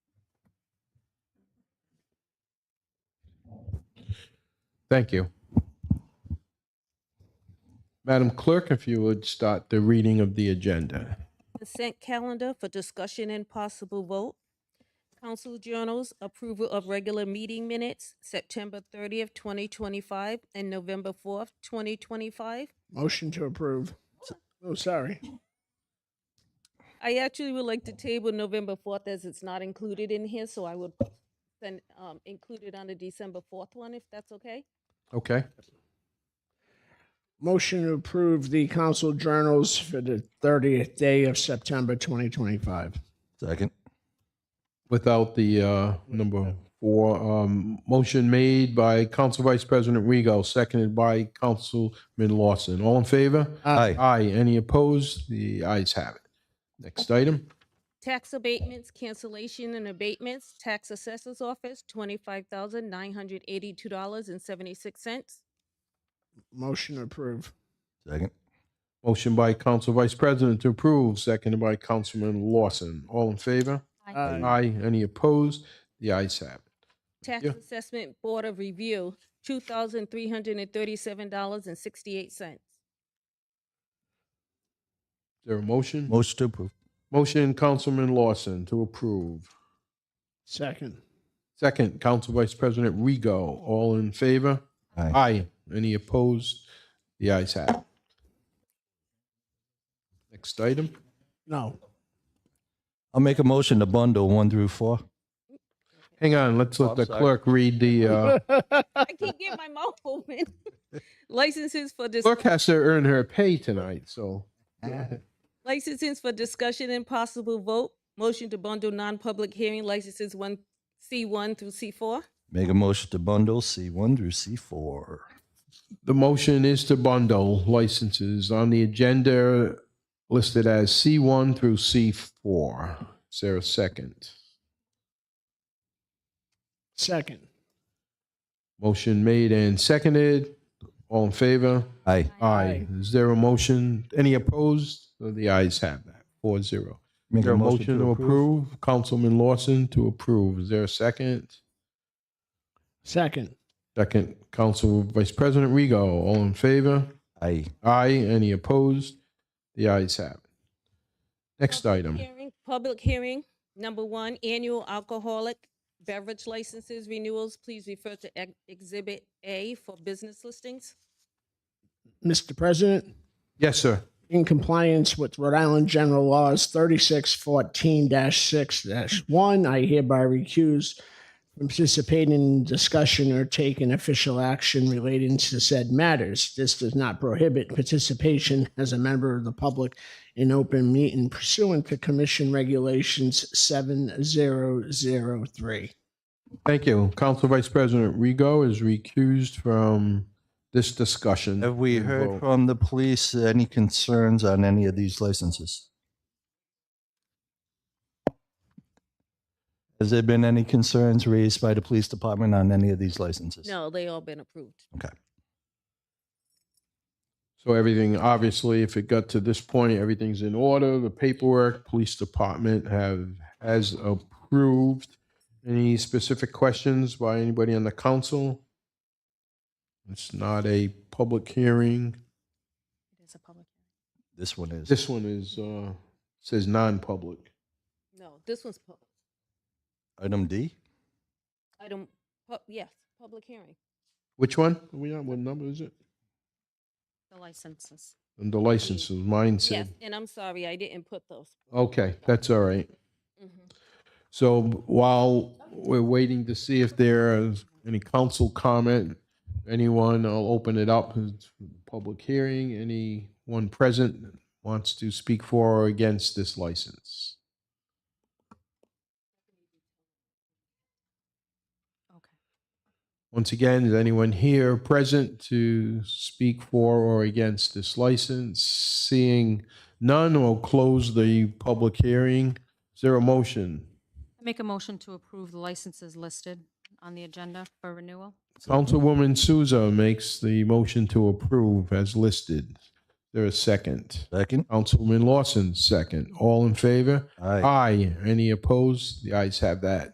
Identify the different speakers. Speaker 1: Thank you. Madam Clerk, if you would start the reading of the agenda.
Speaker 2: Consent calendar for discussion and possible vote. Council journals, approval of regular meeting minutes, September thirtieth, twenty twenty-five, and November fourth, twenty twenty-five.
Speaker 3: Motion to approve. Oh, sorry.
Speaker 2: I actually would like to table November fourth as it's not included in here, so I would then, um, include it on the December fourth one, if that's okay?
Speaker 1: Okay,
Speaker 3: Motion to approve the council journals for the 30th day of September 2025.
Speaker 4: Second.
Speaker 1: without the uh, number four, um, motion made by Council Vice President Rego, seconded by Councilman Lawson. All in favor?
Speaker 4: Aye.
Speaker 1: Aye. Any opposed? The ayes have it. Next item.
Speaker 2: Tax abatements, cancellation and abatements, tax assessor's office, twenty-five thousand nine hundred eighty-two dollars and seventy-six cents.
Speaker 3: Motion to approve.
Speaker 4: Second.
Speaker 1: Motion by Council Vice President to approve, seconded by Councilman Lawson. All in favor?
Speaker 3: Aye.
Speaker 1: Aye. Any opposed? The ayes have it.
Speaker 2: Tax
Speaker 1: Yeah.
Speaker 2: Assessment Board of Review, two thousand three hundred and thirty-seven dollars and sixty-eight cents.
Speaker 1: Is there a motion?
Speaker 4: Motion to approve.
Speaker 1: Motion, Councilman Lawson, to approve.
Speaker 3: Second.
Speaker 1: Second, Council Vice President Rego. All in favor?
Speaker 4: Aye.
Speaker 1: Aye. Any opposed? The ayes have it. Next item.
Speaker 3: No.
Speaker 4: I'll make a motion to bundle one through four.
Speaker 1: Hang on, let's
Speaker 4: Oh,
Speaker 1: let
Speaker 4: I'm
Speaker 1: the
Speaker 4: sorry.
Speaker 1: clerk read the, uh,
Speaker 2: I can't get my mouth open. Licenses for dis-
Speaker 1: clerk has to earn her pay tonight, so.
Speaker 2: licenses for discussion and possible vote. Motion to bundle non-public hearing licenses one, C one through C four.
Speaker 4: Make a motion to bundle C1 through C4.
Speaker 1: The motion is to bundle licenses on the agenda listed as C1 through C4. Is there a second?
Speaker 3: Second.
Speaker 1: Motion made and seconded. All in favor?
Speaker 4: Aye.
Speaker 1: Aye. Is there a motion? Any opposed? So The ayes have that, four zero. Is
Speaker 4: Make
Speaker 1: there a motion to approve? Councilman Lawson to approve. Is there a second?
Speaker 3: Second.
Speaker 1: Second, Council Vice President Rego. All in favor?
Speaker 4: Aye.
Speaker 1: Aye. Any opposed? The ayes have it. Next
Speaker 2: Public
Speaker 1: item.
Speaker 2: hearing- Public hearing, number one, annual alcoholic beverage licenses renewals. Please refer to ex- Exhibit A for business listings.
Speaker 3: Mr. President,
Speaker 1: Yes, sir.
Speaker 3: in compliance with Rhode Island General Laws 3614-6-1, I hereby recuse from participating in discussion or taking official action relating to said matters. This does not prohibit participation as a member of the public in open meeting pursuant to Commission Regulations 7003.
Speaker 1: Thank you. Council Vice President Rego is recused from this discussion.
Speaker 4: Have we
Speaker 1: and vote.
Speaker 4: heard from the police any concerns on any of these licenses? Has there been any concerns raised by the police department on any of these licenses?
Speaker 2: No, they all been approved.
Speaker 4: Okay.
Speaker 1: So everything, obviously, if it got to this point, everything's in order, the paperwork, police department have, has approved. Any specific questions by anybody on the council? It's not a public hearing.
Speaker 2: It's a public.
Speaker 4: This one is.
Speaker 1: This one is, uh, says non-public.
Speaker 2: No, this one's public.
Speaker 4: Item D?
Speaker 2: Item, pu- yes, public hearing.
Speaker 1: Which one? Are we on, what number is it?
Speaker 2: The licenses.
Speaker 1: And the licenses, mine
Speaker 2: Yes,
Speaker 1: said.
Speaker 2: and I'm sorry, I didn't put those.
Speaker 1: Okay, that's all right.
Speaker 2: Mhm.
Speaker 1: So while we're waiting to see if there is any council comment, anyone, I'll open it up to public hearing. Anyone present wants to speak for or against this license? Once again, is anyone here present to speak for or against this license? Seeing none, we'll close the public hearing. Is there a motion?
Speaker 5: I Make a motion to approve the licenses listed on the agenda for renewal.
Speaker 1: Councilwoman Souza makes the motion to approve as listed. There a second?
Speaker 4: Second?
Speaker 1: Councilman Lawson, second. All in favor?
Speaker 4: Aye.
Speaker 1: Any opposed? The ayes have that.